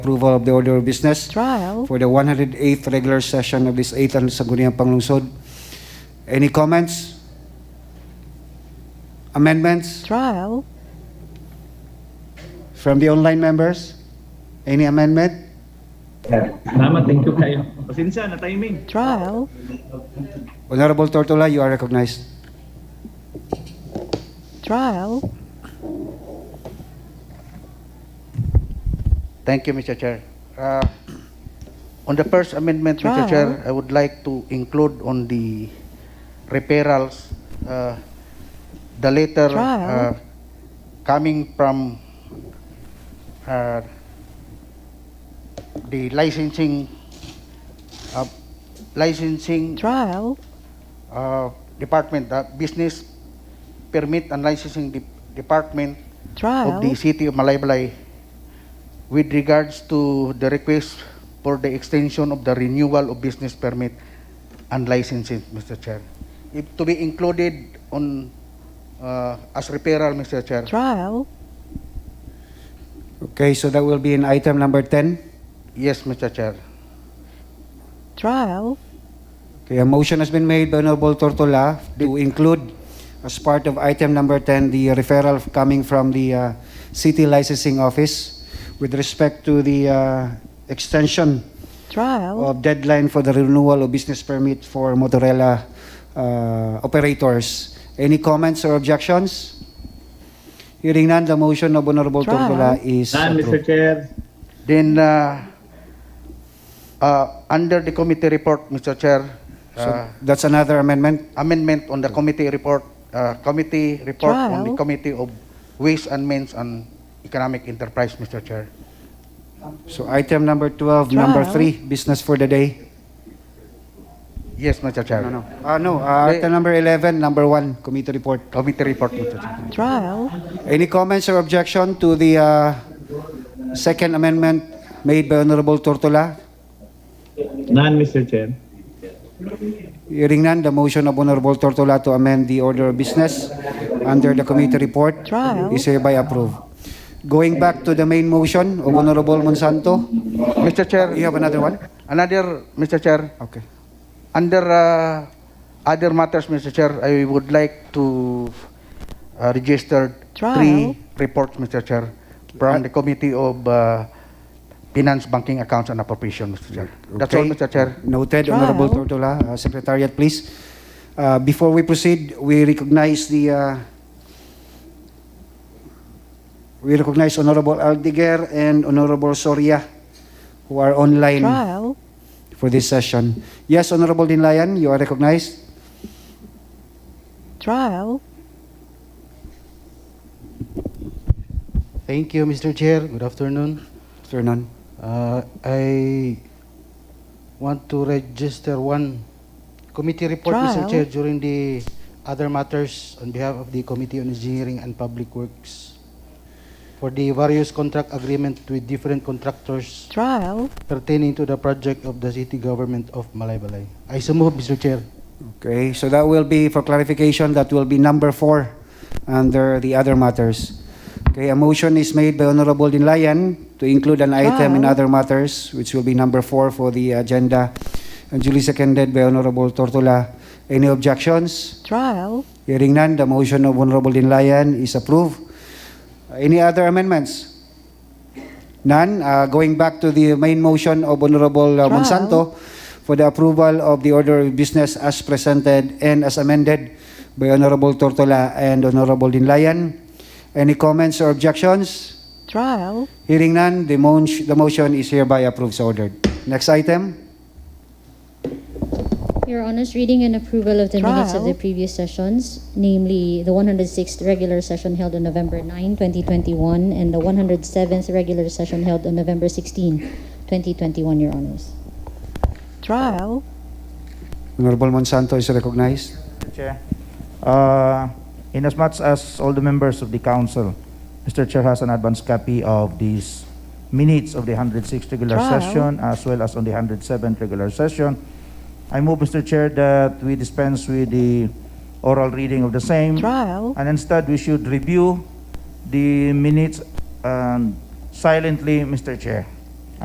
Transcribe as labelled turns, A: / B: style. A: Approval of the order of business
B: trial.
A: for the 108th regular session of this 8th Sangguniang Panglungsod. Any comments? Amendments
B: Trial.
A: from the online members? Any amendment?
C: Salamat, thank you kayo. Pasensya na timing.
B: Trial.
A: Honorable Tortola, you are recognized.
B: Trial.
D: Thank you, Mr. Chair. Uh, On the first amendment,
B: Trial.
D: Mr. Chair, I would like to include on the referrals, uh, the letter
B: Trial.
D: uh, coming from uh, the licensing, uh, licensing
B: Trial.
D: uh, department, the business permit and licensing de- department of the
B: Trial.
D: city of Malaybalay with regards to the request for the extension of the renewal of business permit and licensing, Mr. Chair. If to be included on, uh, as referral, Mr. Chair.
B: Trial.
A: Okay, so that will be in item number 10.
D: Yes, Mr. Chair.
B: Trial.
A: Okay, a motion has been made by Honorable Tortola to include as part of item number 10, the referral coming from the uh, City Licensing Office with respect to the uh, extension
B: Trial.
A: of deadline for the renewal of business permit for Motorola uh, operators. Any comments or objections? Hearing none, the motion of Honorable
B: Trial.
A: Tortola is
C: Saan, Mr.
A: approved.
C: Chair?
D: Then, uh, uh, under the committee report, Mr. Chair, uh,
A: So that's another amendment.
D: amendment on the committee report, uh, committee report on the
B: Trial.
D: committee of ways and means and economic enterprise, Mr. Chair.
A: So item number 12, number
B: Trial.
A: 3, business for the day.
D: Yes, Mr. Chair.
A: No, no. Uh, no, uh,
D: Wait.
A: item number 11, number 1, committee report.
D: Committee report, Mr. Chair.
B: Trial.
A: Any comments or objection to the uh, second amendment made by Honorable Tortola?
C: None, Mr. Chair.
A: Hearing none, the motion of Honorable Tortola to amend the order of business under the committee report
B: Trial.
A: is hereby approved. Going back to the main motion of Honorable Monsanto,
D: Mr. Chair,
A: you have another one?
D: another, Mr. Chair,
A: Okay.
D: under uh, other matters, Mr. Chair, I would like to uh, register
B: Trial.
D: three reports, Mr. Chair, from the Committee of uh, Finance, Banking, Accounts and Appropriation, Mr. Chair. That's all,
A: Okay.
D: Mr. Chair.
A: Noted,
B: Trial.
A: Honorable Tortola. Uh, Secretariat, please. Uh, Before we proceed, we recognize the, uh, we recognize Honorable Aldeguer and Honorable Soria, who are online
B: Trial.
A: for this session. Yes, Honorable Dinlayan, you are recognized.
B: Trial.
E: Thank you, Mr. Chair. Good afternoon.
A: Sir Nun.
E: Uh, I want to register one committee report,
B: Trial.
E: Mr. Chair, during the other matters on behalf of the Committee on Engineering and Public Works for the various contract agreement with different contractors
B: Trial.
E: pertaining to the project of the city government of Malaybalay. I so move, Mr. Chair.
A: Okay, so that will be, for clarification, that will be number four under the other matters. Okay, a motion is made by Honorable Dinlayan to include an item in
B: Wow.
A: other matters, which will be number four for the agenda, and duly seconded by Honorable Tortola. Any objections?
B: Trial.
A: Hearing none, the motion of Honorable Dinlayan is approved. Any other amendments? None. Uh, Going back to the main motion of Honorable uh,
B: Trial.
A: Monsanto for the approval of the order of business as presented and as amended by Honorable Tortola and Honorable Dinlayan. Any comments or objections?
B: Trial.
A: Hearing none, the mon- the motion is hereby approved, so ordered. Next item?
F: Your Honor's reading and approval of the minutes of the
B: Trial.
F: previous sessions, namely the 106th regular session held on November 9, 2021, and the 107th regular session held on November 16, 2021, Your Honors.
B: Trial.
A: Honorable Monsanto is recognized.
G: Mr. Chair, uh, inasmuch as all the members of the council, Mr. Chair has an advance copy of these minutes of the 106th regular
B: Trial.
G: session as well as on the 107th regular session. I move, Mr. Chair, that we dispense with the oral reading of the same.
B: Trial.
G: And instead, we should review the minutes um, silently, Mr. Chair.